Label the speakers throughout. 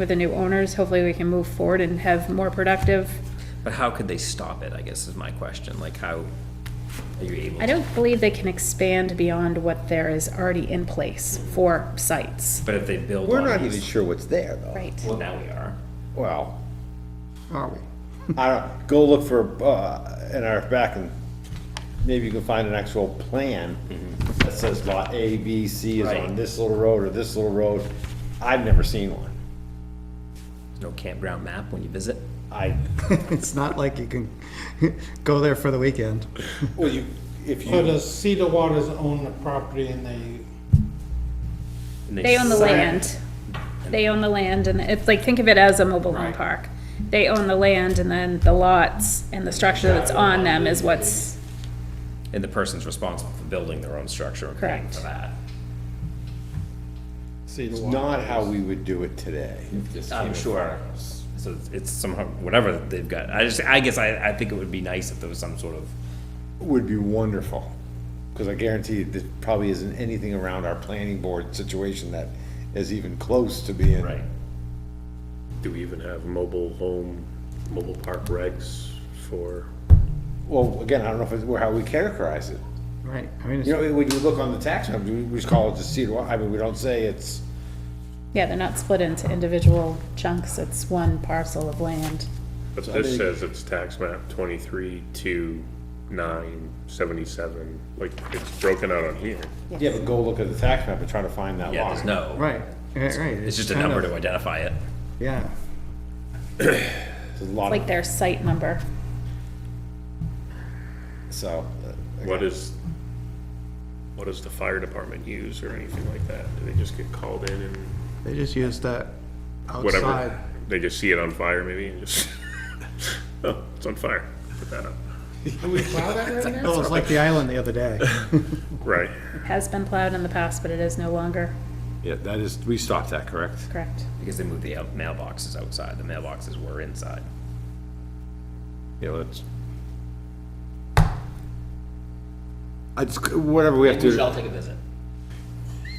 Speaker 1: with the new owners, hopefully we can move forward and have more productive.
Speaker 2: But how could they stop it, I guess is my question, like how are you able?
Speaker 1: I
Speaker 2: to-
Speaker 1: don't believe they can expand beyond what there is already in place for sites.
Speaker 2: But if they build
Speaker 3: We're
Speaker 2: one
Speaker 3: not
Speaker 2: of
Speaker 3: even
Speaker 2: these,
Speaker 3: sure what's there, though.
Speaker 1: Right.
Speaker 2: well, now we are.
Speaker 3: Well,
Speaker 4: are we?
Speaker 3: I don't, go look for, uh, in our back and maybe you can find an actual plan that says lot A, B, C is on
Speaker 2: Right.
Speaker 3: this little road or this little road. I've never seen one.
Speaker 2: There's no campground map when you visit.
Speaker 3: I,
Speaker 4: It's not like you can go there for the weekend.
Speaker 3: well, you, if
Speaker 5: So
Speaker 3: you,
Speaker 5: does Cedar Waters own the property and they,
Speaker 2: and
Speaker 1: They own the
Speaker 2: sign-
Speaker 1: land. They own the land and it's like, think of it as a mobile home park. They own the land and then the lots and the structure that's on them is what's,
Speaker 2: And the person's responsible for building their own structure and paying
Speaker 1: Correct.
Speaker 2: for that.
Speaker 3: it's not how we would do it today.
Speaker 2: I'm sure. So it's- it's somehow, whatever they've got. I just, I guess I, I think it would be nice if there was some sort of,
Speaker 3: Would be wonderful, because I guarantee there probably isn't anything around our planning board situation that is even close to being.
Speaker 2: right,
Speaker 6: Do we even have mobile home, mobile park regs for,
Speaker 3: Well, again, I don't know if it's, well, how we characterize it.
Speaker 4: Right, I mean,
Speaker 3: You
Speaker 4: it's-
Speaker 3: know, when you look on the tax map, we we just call it the Cedar, Wa- I mean, we don't say it's,
Speaker 1: yeah, they're not split into individual chunks. It's one parcel of land.
Speaker 6: but
Speaker 3: I
Speaker 6: this
Speaker 3: think-
Speaker 6: says it's tax map twenty-three to nine seventy-seven, like, it's broken out on here.
Speaker 3: yeah, but go look at the tax map and try to find that
Speaker 2: yeah, there's
Speaker 3: line.
Speaker 2: no.
Speaker 4: right, right, right.
Speaker 2: It's just a
Speaker 4: kind
Speaker 2: number
Speaker 4: of-
Speaker 2: to identify it.
Speaker 4: Yeah,
Speaker 3: There's a lot
Speaker 1: Like
Speaker 3: of,
Speaker 1: their site number.
Speaker 3: so, uh,
Speaker 6: What is, what does the fire department use or anything like that? Do they just get called in and
Speaker 4: they just use that outside.
Speaker 6: whatever? They just see it on fire maybe and just, oh, it's on fire, put that up.
Speaker 5: do we plow that right now?
Speaker 4: Oh, it's like the island the other day.
Speaker 6: Right,
Speaker 1: Has been plowed in the past, but it is no longer.
Speaker 3: yeah, that is, we stopped that, correct?
Speaker 1: Correct.
Speaker 2: Because they moved the out- mailboxes outside, the mailboxes were inside.
Speaker 3: Yeah, let's. I just, whatever we have to, do-
Speaker 2: take a visit.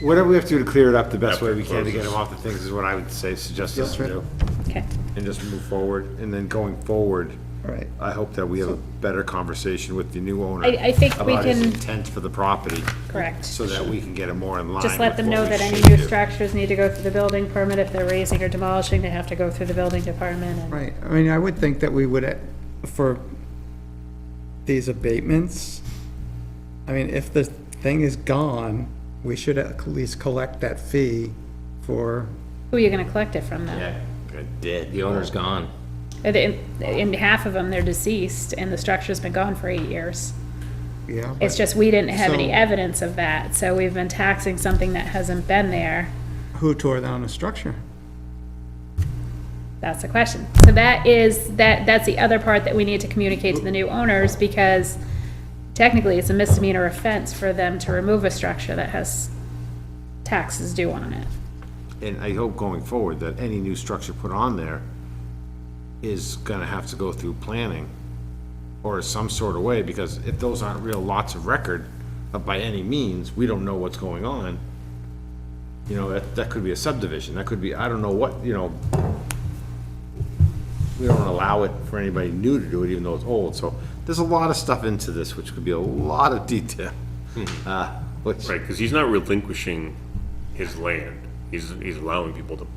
Speaker 3: whatever we have to do to clear it up the best
Speaker 6: After
Speaker 3: way
Speaker 6: it
Speaker 3: we can to get
Speaker 6: closes.
Speaker 3: them off the things is what I would say, suggest us to
Speaker 4: Yep.
Speaker 3: do.
Speaker 1: Okay.
Speaker 3: And just move forward, and then going forward,
Speaker 4: Right,
Speaker 3: I hope that we have a better conversation with the new owner.
Speaker 1: I- I think we
Speaker 3: About his
Speaker 1: can-
Speaker 3: intent for the property.
Speaker 1: Correct.
Speaker 3: So that we can get it more in line.
Speaker 1: Just let
Speaker 3: with
Speaker 1: them
Speaker 3: what
Speaker 1: know
Speaker 3: we
Speaker 1: that any
Speaker 3: should
Speaker 1: new
Speaker 3: do.
Speaker 1: structures need to go through the building permit. If they're raising or demolishing, they have to go through the building department and.
Speaker 4: right. I mean, I would think that we would, eh, for these abatements, I mean, if the thing is gone, we should at least collect that fee for,
Speaker 1: Who are you gonna collect it from then?
Speaker 3: Yeah, they're dead.
Speaker 2: The owner's gone.
Speaker 1: And In, in half of them, they're deceased and the structure's been gone for eight years.
Speaker 4: yeah.
Speaker 1: It's just, we didn't have any
Speaker 4: So-
Speaker 1: evidence of that, so we've been taxing something that hasn't been there.
Speaker 4: but Who tore down the structure?
Speaker 1: That's the question. So that is, that, that's the other part that we need to communicate to the new owners, because technically, it's a misdemeanor offense for them to remove a structure that has taxes due on it.
Speaker 3: And I hope going forward that any new structure put on there is gonna have to go through planning or some sort of way, because if those aren't real lots of record uh, by any means, we don't know what's going on. You know, that, that could be a subdivision, that could be, I don't know what, you know. We don't allow it for anybody new to do it, even though it's old, so there's a lot of stuff into this, which could be a lot of detail. Uh, which,
Speaker 6: right, because he's not relinquishing his land. He's, he's allowing people to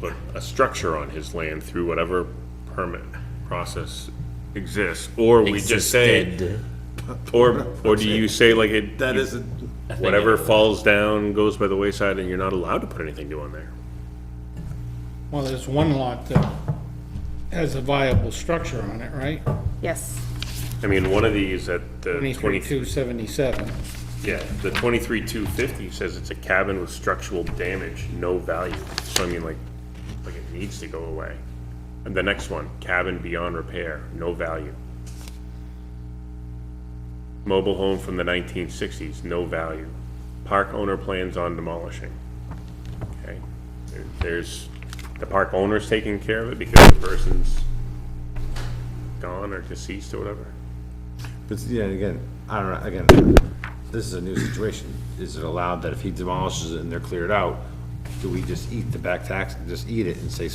Speaker 6: put a structure on his land through whatever permit process exists, or we just say,
Speaker 2: Existed.
Speaker 6: or, or do you say like it?
Speaker 3: that isn't,
Speaker 6: Whatever falls down goes by the wayside and you're not allowed to put anything new on there.
Speaker 5: Well, there's one lot that has a viable structure on it, right?
Speaker 1: Yes.
Speaker 6: I mean, one of these at the
Speaker 5: Twenty-three,
Speaker 6: twenty,
Speaker 5: two seventy-seven.
Speaker 6: yeah, the twenty-three two fifty says it's a cabin with structural damage, no value. So I mean, like, like it needs to go away. And the next one, cabin beyond repair, no value. Mobile home from the nineteen sixties, no value. Park owner plans on demolishing. Okay, There- there's, the park owner's taking care of it because the person's gone or deceased or whatever.
Speaker 3: But yeah, again, I don't know, again, this is a new situation. Is it allowed that if he demolishes it and they're cleared out, do we just eat the back tax, just eat it and say,